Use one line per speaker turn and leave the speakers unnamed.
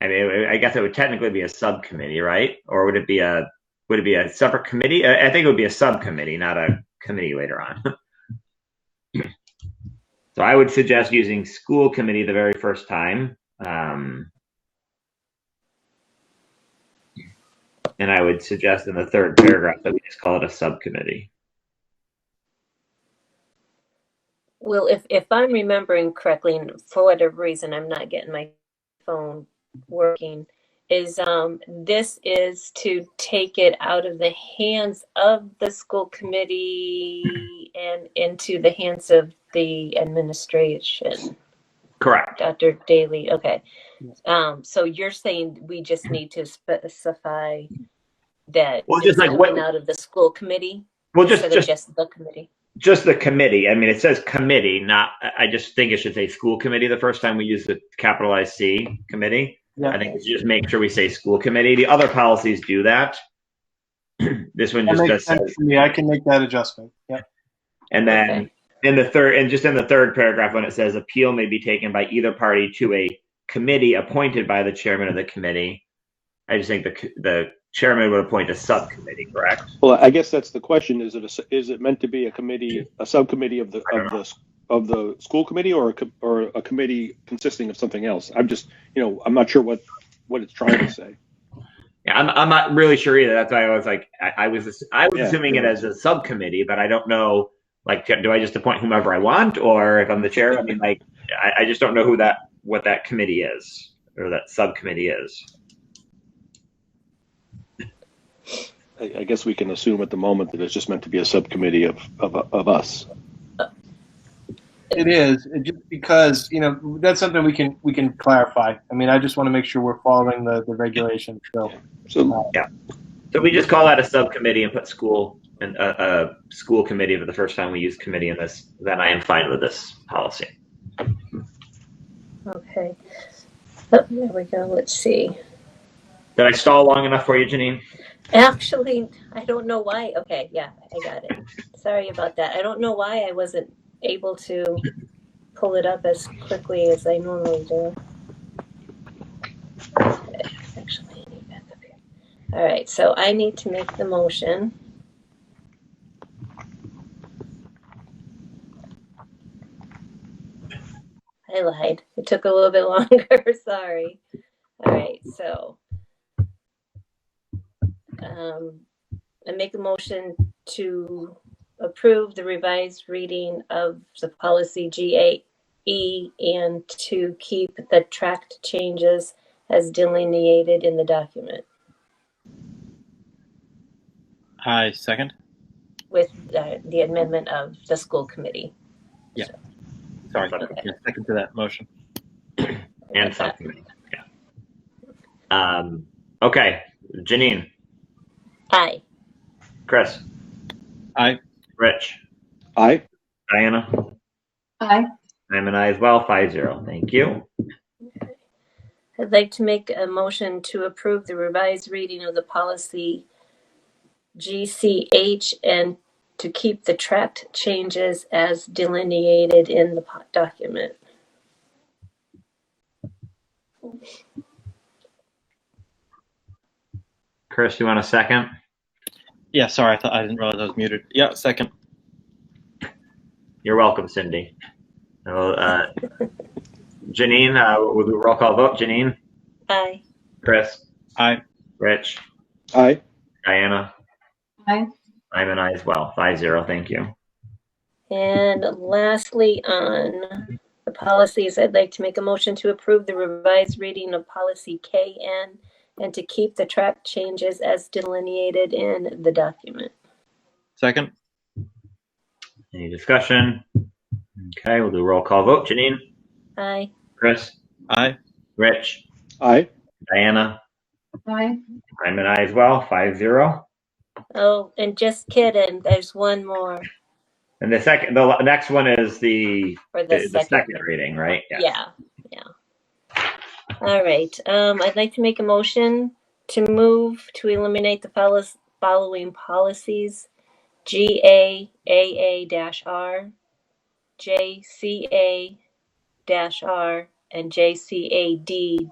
I mean, it- I guess it would technically be a subcommittee, right? Or would it be a would it be a separate committee? I I think it would be a subcommittee, not a committee later on. so I would suggest using school committee the very first time, um, and I would suggest in the third paragraph that we just call it a subcommittee.
Well, if, if I'm remembering correctly, and for whatever reason, I'm not getting my phone working, is um, this is to take it out of the hands of the school committee and into the hands of the administration.
Correct.
Dr. Daly, okay. Um, so you're saying we just need to specify that
Well, just
it's
like what-
coming out of the school committee
Well, just
instead of
just
just the committee?
just the committee. I mean, it says committee, not. I- I just think it should say school committee the first time we use the capitalized C committee. I think it's just make sure we say school committee. The other policies do that. this one
That
just
makes
does.
sense to me. I can make that adjustment. Yeah.
And then
Okay.
in the third, and just in the third paragraph, when it says appeal may be taken by either party to a committee appointed by the chairman of the committee, I just think the c- the chairman would appoint a subcommittee, correct?
Well, I guess that's the question. Is it, a- is it meant to be a committee, a subcommittee of the,
I don't
of the, of the school committee or a, co- or a committee consisting of something else? I'm just, you know, I'm not sure what, what it's trying to say.
Yeah, I'm, I'm not really sure either. That's why I was like, I, I was I was
Yeah.
assuming it as a subcommittee, but I don't know. Like, do I just appoint whomever I want, or if I'm the chair? I mean, like, I, I just don't know who that what that committee is or that subcommittee is.
I, I guess we can assume at the moment that it's just meant to be a subcommittee of, of, of us.
It is it just because you know that's something we can we can clarify. I mean, I just want to make sure we're following the the regulation. So
So,
So we just call that a subcommittee and put school and a, a school committee for the first time we use committee in this. Then I am fine with this policy.
Okay. Oh, there we go. Let's see.
Did I stall long enough for you, Janine?
Actually, I don't know why. Okay, yeah, I got it. Sorry about that. I don't know why I wasn't able to pull it up as quickly as I normally do. Actually, I need back up here. All right, so I need to make the motion. I lied. It took a little bit longer. Sorry. All right, so um, I make a motion to approve the revised reading of the policy GAE and to keep the tracked changes as delineated in the document
Hi, second.
with uh, the amendment of the school committee.
Sorry,
Okay.
yeah, second to that motion.
And subcommittee. Yeah. Um, okay, Janine,
Aye.
Chris,
Aye.
Rich.
I,
Diana?
Aye.
I'm an I as well, five zero. Thank you.
I'd like to make a motion to approve the revised reading of the policy GCH and to keep the tracked changes as delineated in the po- document.
Chris, you want a second?
Yeah, sorry, I thought I didn't realize I was muted. Yeah, second.
You're welcome, Cindy. So, uh, Janine, uh, we'll do a roll call vote. Janine,
Aye.
Chris,
Aye.
Rich,
I,
Diana,
Aye.
I'm an I as well, five zero. Thank you.
And lastly, on the policies, I'd like to make a motion to approve the revised reading of policy KN and to keep the tracked changes as delineated in the document.
Second.
Any discussion? Okay, we'll do a roll call vote. Janine,
Aye.
Chris,
Aye.
Rich,
I,
Diana,
Aye.
I'm an I as well, five zero.
Oh, and just kidding, there's one more
And the second, the next one is the,
for the
the the
second.
second reading, right? Yes.
Yeah, yeah. All right, um, I'd like to make a motion to move to eliminate the follows, following policies. G A A A dash R, J C A dash R, and J C A D